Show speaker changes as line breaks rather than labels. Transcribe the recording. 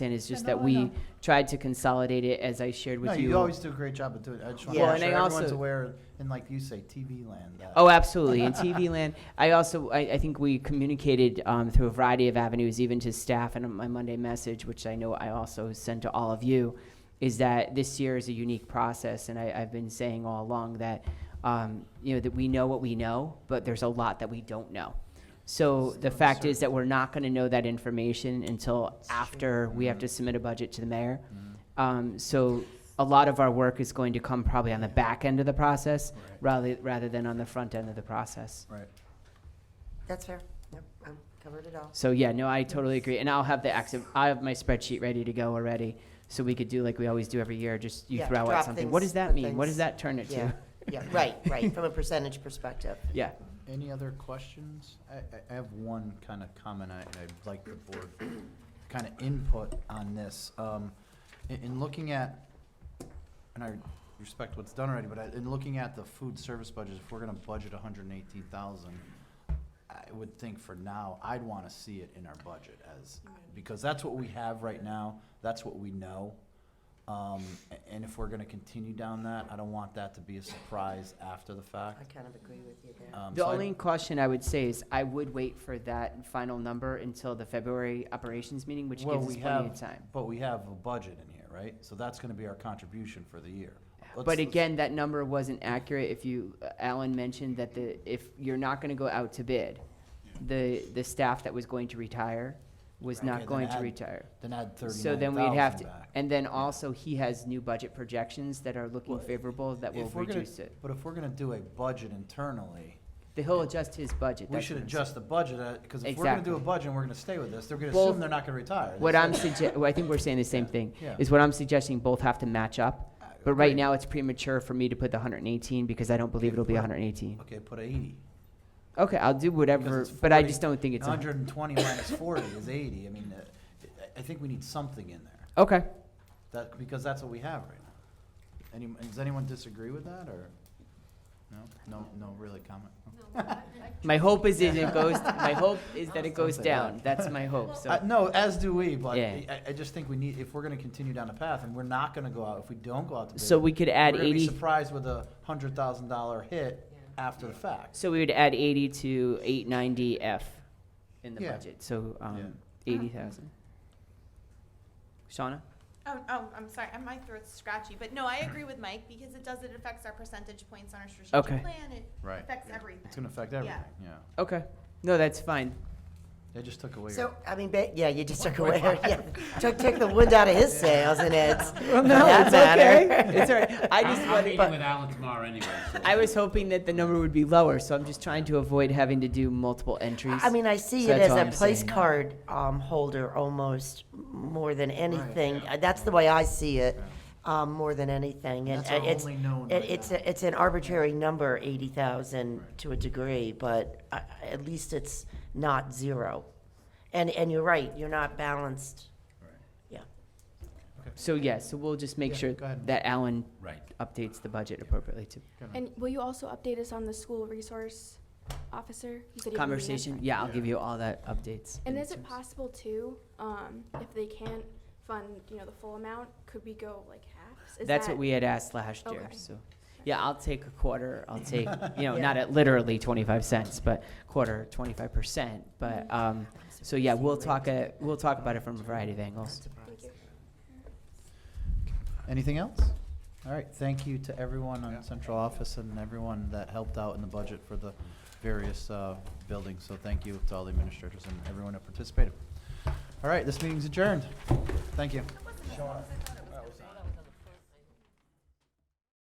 And it's just
Yeah, no,
that
I
we
know.
tried to consolidate it, as I shared
No,
with
you
you.
always do a great job of doing it. I just want
Yeah.
to
Well,
make
and
sure
I
everyone's
also-
aware, and like you say, TV land. that-
Oh, absolutely. In TV land, I also, I, I think we communicated um, through a variety of avenues, even to staff and my Monday message, which I know I also sent to all of you, is that this year is a unique process. And I, I've been saying all along that, um, you know, that we know what we know, but there's a lot that we don't know. So the fact is that we're not going to know that information until after we have to submit a budget to the mayor.
Mhm.
Um, so a lot of our work is going to come probably on the back end of the process rather, rather than on the front end of the process.
Right.
That's fair. Yep, I'm covered it all.
So yeah, no, I totally agree. And I'll have the active, I have my spreadsheet ready to go already. So we could do like we always do every year, just you
Yeah,
throw out
drop
something. What does
things,
that
put
mean? What does
things.
that turn it
Yeah,
to?
yeah, right, right, from a percentage perspective.
Yeah.
Any other questions? I, I- I have one kind of comment, I, I'd like the board kind of input on this. Um, in, in looking at, and I respect what's done already, but I- in looking at the food service budget, if we're gonna budget hundred and eighteen thousand, I would think for now, I'd wanna see it in our budget as, because that's what we have right now, that's what we know. Um, a- and if we're gonna continue down that, I don't want that to be a surprise after the
I
fact.
kind of agree with you there.
Um,
The
so I-
only caution I would say is I would wait for that final number until the February operations meeting, which
Well,
gives us
we
plenty
have-
of time.
But we have a budget in here, right? So that's gonna be our contribution for the year. Let's-
But
let's-
again, that number wasn't accurate. If you, Alan mentioned that the, if you're not gonna go out to bid, the, the staff that was going to retire was
Right. Okay,
not
then
going to
add
retire.
Then add
So
thirty-nine
then we'd have
thousand
to,
back.
and then also he has new budget projections that are looking
Well,
favorable that will
If we're gonna-
reduce it.
But if we're gonna do a budget internally,
That He'll adjust his budget.
we
that's
should
what I'm
adjust
saying.
the budget, because if we're gonna do a
Exactly.
budget and we're gonna stay with this, they're gonna
Both-
assume they're not gonna retire.
What
They
I'm
said-
sugge, well, I think we're saying the same thing,
Yeah.
is what I'm suggesting both have to match up.
I
But right
agree.
now, it's premature for me to put the hundred and eighteen because I don't believe
Okay,
it'll be
put-
hundred and eighteen.
Okay, put eighty.
Okay, I'll do whatever,
it's
but I
40,
just don't think it's. a hun-
Hundred and twenty minus forty is eighty. I mean, uh, I, I think we need something in there,
Okay.
that, because that's what we have right now. Any, does anyone disagree with that, or? No, no, no really comment?
My hope is that it goes, my hope is that it goes
Something like
down. That's my hope,
Uh,
so.
no, as do we, but
Yeah.
I, I just think we need, if we're gonna continue down the path, and we're not gonna go out, if we don't go out to bid.
So we could add
we're gonna be
eighty,
surprised with a hundred thousand dollar hit after the fact.
so we would add eighty to eight ninety F in the
Yeah.
budget, so,
Yeah.
um, eighty thousand. Shauna?
Oh, oh, I'm sorry, I- my throat's scratchy, but no, I agree with Mike, because it does, it affects our percentage points on our
Okay.
strategic plan, it
Right.
affects
It's
everything.
gonna affect everything, yeah.
Okay. No, that's fine.
They just took away your,
So, I mean, ba- yeah, you just took away, yeah, took, took the wind out of his sails and it's,
Well,
for that matter.
It's Um, all right. I just
I'm
wanted,
meeting with Alan tomorrow anyway. so-
I was hoping that the number would be lower, so I'm just trying to avoid having to do multiple entries.
I mean, I see
So
it
that's
as
all
a
I'm
place
saying.
card um, holder almost more than anything. Uh, That's the way I see it, um, more than anything. And
that's our
uh, it's-
only known
It,
right
it's,
now.
a- it's an arbitrary number, eighty thousand to a degree, but I- I- at least it's not zero. And, and you're right, you're not balanced.
So yes, so we'll just make
Yeah,
sure
go ahead.
that Alan
Right.
updates the budget appropriately too.
And will you also update us on the school resource officer? You said you can do next
conversation.
time.
Yeah, I'll give you all that updates.
And
in
is it
terms-
possible too, um, if they can't fund, you know, the full amount, could we go like halves? Is
That's
that-
what we had asked last year,
Okay.
so. Yeah, I'll take a quarter, I'll take, you know,
Yeah.
not at literally twenty-five cents, but quarter, twenty-five percent,
Mm-hmm.
but, um, so yeah, we'll talk, uh, we'll talk about it from a variety of angles.
Thank you.
anything else? All right, thank you to everyone on central office and everyone that helped out in the budget for the various, uh, buildings. So thank you to all the administrators and everyone that participated. All right, this meeting's adjourned. Thank you.
It wasn't as long as I thought.